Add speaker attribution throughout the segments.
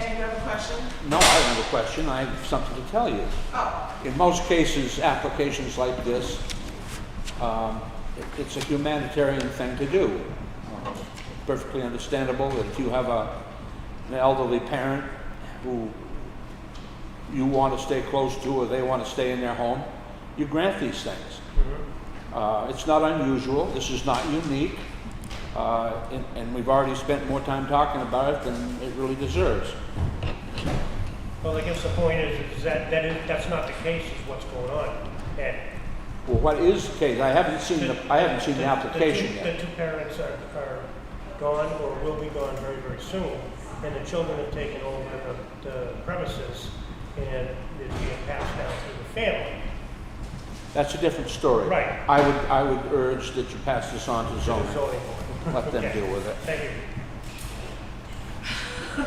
Speaker 1: question?
Speaker 2: No, I don't have a question, I have something to tell you.
Speaker 1: Oh,
Speaker 2: In most cases, applications like this, um, it- it's a humanitarian thing to do. Um, Perfectly understandable that if you have a, an elderly parent who you want to stay close to or they want to stay in their home, you grant these things. Uh, It's not unusual, this is not unique, uh, and and we've already spent more time talking about it than it really deserves.
Speaker 3: Well, I guess the point is, is that, that is, that's not the case is what's going on. And
Speaker 2: Well, what is the case? I haven't seen the, I haven't seen the application
Speaker 3: two-
Speaker 2: yet.
Speaker 3: The two parents are, are gone or will be gone very, very soon. And the children have taken over the, the premises and it's being passed down through the family.
Speaker 2: That's a different story.
Speaker 3: Right.
Speaker 2: I would, I would urge that you pass this on to
Speaker 3: to the
Speaker 2: zoning.
Speaker 3: zoning board.
Speaker 2: Let them
Speaker 3: Okay.
Speaker 2: deal with it.
Speaker 3: Thank you.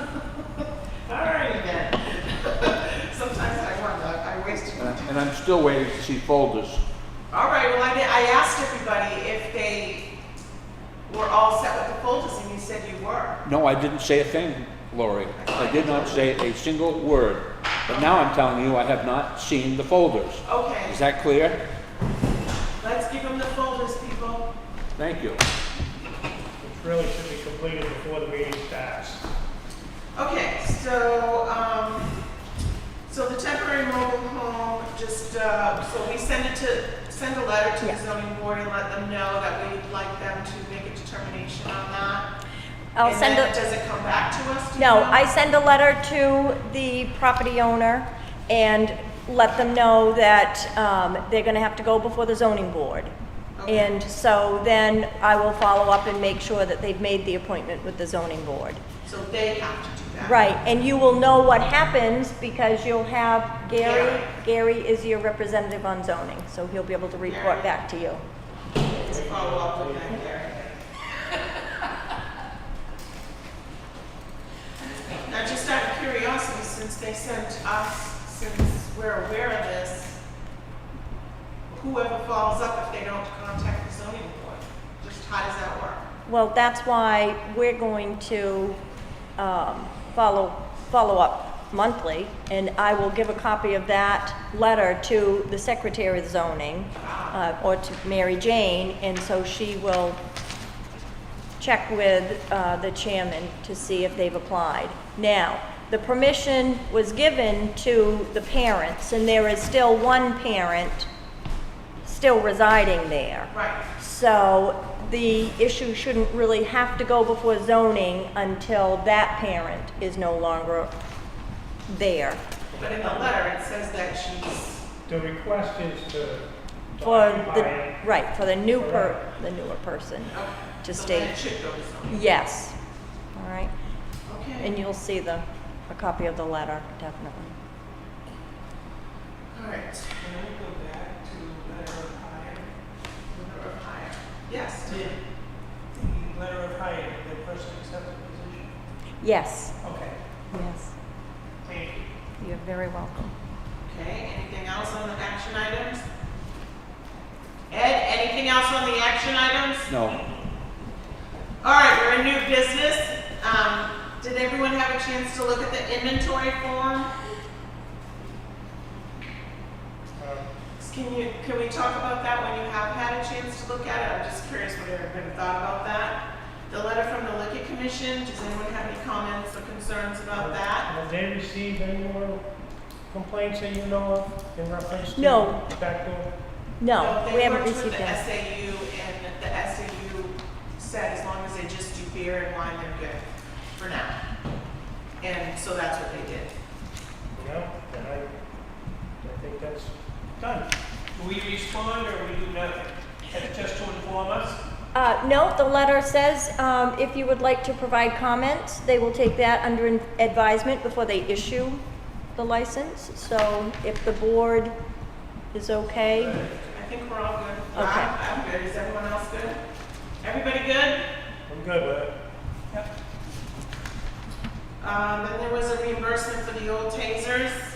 Speaker 1: all righty then. Sometimes I wonder, I wasted
Speaker 2: And I- Uh, and I'm still waiting to see folders.
Speaker 1: All right, well, I, did- I asked everybody if they were all set with the folders, and you said you were.
Speaker 2: No, I didn't say a thing, Lori. I did not say a single word. But now I'm telling you, I have not seen the folders. Is
Speaker 1: Okay,
Speaker 2: that clear?
Speaker 1: let's give them the folders, people.
Speaker 2: Thank you.
Speaker 3: It really should be completed before the meeting starts.
Speaker 1: Okay, so, um, so the temporary mobile home, just, uh, so we send it to, send a letter to the zoning board and let them know that we'd like them to make a determination on that.
Speaker 4: I'll
Speaker 1: And
Speaker 4: send
Speaker 1: then
Speaker 4: a-
Speaker 1: Does it come back to us? do you
Speaker 4: No,
Speaker 1: know?
Speaker 4: I send a letter to the property owner and let them know that um, they're going to have to go before the zoning board.
Speaker 1: Okay.
Speaker 4: And so then I will follow up and make sure that they've made the appointment with the zoning board.
Speaker 1: So they have to do that.
Speaker 4: Right, and you will know what happens because you'll have Gary, Gary is your representative on zoning, so he'll be able to report back to you.
Speaker 1: Let's follow up with that, Gary. Now, just out of curiosity, since they sent us, since we're aware of this, whoever falls up if they don't contact the zoning board, just how does that work?
Speaker 4: Well, that's why we're going to um, follow, follow up monthly, and I will give a copy of that letter to the Secretary of Zoning, uh, or to Mary Jane, and so she will check with uh, the chairman to see if they've applied. Now, the permission was given to the parents, and there is still one parent still residing there.
Speaker 1: Right,
Speaker 4: So the issue shouldn't really have to go before zoning until that parent is no longer there.
Speaker 1: but in the letter, it says that she's,
Speaker 3: The request is to to
Speaker 4: For the,
Speaker 3: occupy it.
Speaker 4: right, for the new per, the newer person to
Speaker 1: so then
Speaker 4: stay.
Speaker 1: it should go to zoning.
Speaker 4: Yes, all right. And
Speaker 1: Okay,
Speaker 4: you'll see the, a copy of the letter, definitely.
Speaker 1: all right. Can we go back to letter of hire? Letter of hire, yes.
Speaker 5: Did the letter of hire, the person accept the position?
Speaker 4: Yes,
Speaker 5: Okay,
Speaker 4: yes,
Speaker 5: thank you.
Speaker 4: you're very welcome.
Speaker 1: Okay, anything else on the action items? Ed, anything else on the action items?
Speaker 2: No.
Speaker 1: All right, we're in new business. Um, did everyone have a chance to look at the inventory form?
Speaker 3: Um,
Speaker 1: Can you, can we talk about that when you have had a chance to look at it? I'm just curious what everybody thought about that. The letter from the liquor commission, does anyone have any comments or concerns about that?
Speaker 3: Have they received any more complaints that you know of in reference to?
Speaker 4: No.
Speaker 3: the Back door?
Speaker 4: No,
Speaker 1: So
Speaker 4: we haven't received that.
Speaker 1: They worked with the SAU and the SAU said as long as they just do beer and wine, they're good for now. And so that's what they did.
Speaker 3: No, then I, I think that's done.
Speaker 5: Do we respond or we do nothing? That's just to inform us?
Speaker 4: Uh, no, the letter says, um, if you would like to provide comments, they will take that under advisement before they issue the license. So if the board is okay,
Speaker 1: I think we're all good.
Speaker 4: Okay.
Speaker 1: I'm I'm good. Is everyone else good? Everybody good?
Speaker 3: I'm good with it.
Speaker 1: Um, and there was a reimbursement for the old tasers. Um,